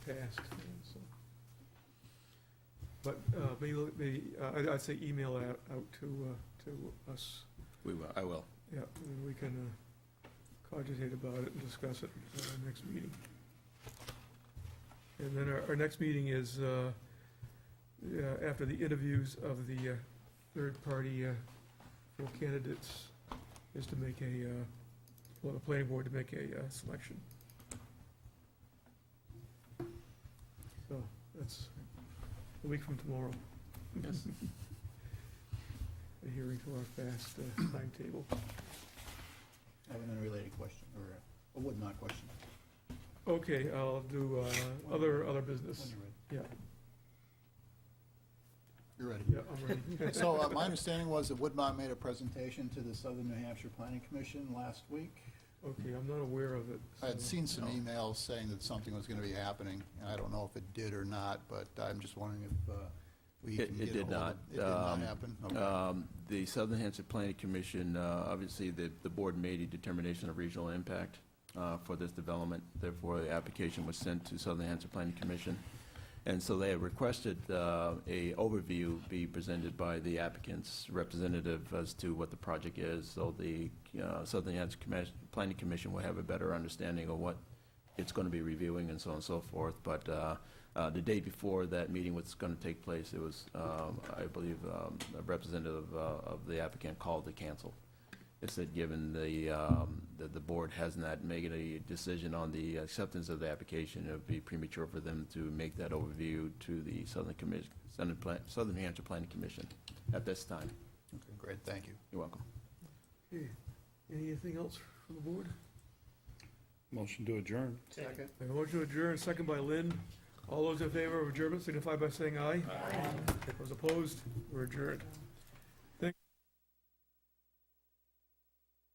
past. so. But uh, maybe, look- maybe, uh, I'd- I'd say email out, out to, uh, to us, We will, I will. yeah, and we can uh, cogitate about it and discuss it at our next meeting. And then our, our next meeting is uh, yeah, after the interviews of the uh, third party uh, for candidates, is to make a, uh, well, the planning board to make a uh, selection. So that's a week from tomorrow. Yes. Adhering to our fast uh, timetable. I have an unrelated question, or a- a would not question. Okay, I'll do uh, other, other business. When Yeah, You're ready. yeah, I'm ready. You're ready. So uh, my understanding was that Woodmont made a presentation to the Southern New Hampshire Planning Commission last week. Okay, I'm not aware of it. I had so- seen some emails saying that something was going to be happening, and I don't know if it did or not, but I'm just wondering if uh, we It- can it get did ahold of- not. It did not Um, happen? Okay. Um, The Southern Hampshire Planning Commission, uh, obviously, the, the board made a determination of regional impact uh, for this development. Therefore, the application was sent to Southern Hampshire Planning Commission. And so they have requested uh, a overview be presented by the applicant's representative as to what the project is. So the uh, Southern Hampshire Commis- Planning Commission will have a better understanding of what it's going to be reviewing and so on and so forth. But uh, uh, The day before that meeting was going to take place, it was, um, I believe, um, a representative uh, of the applicant called to cancel. It said, given the, um, that the board has not made a decision on the acceptance of the application, it would be premature for them to make that overview to the Southern Commission, Southern Plan, Southern New Hampshire Planning Commission at this time. Okay, Great, thank you. You're welcome. Okay. Anything else from the board? Motion to adjourn. Second. I have a motion to adjourn, second by Lynn. All those in favor of adjournment signify by saying aye. Aye. Those opposed, we're adjourned.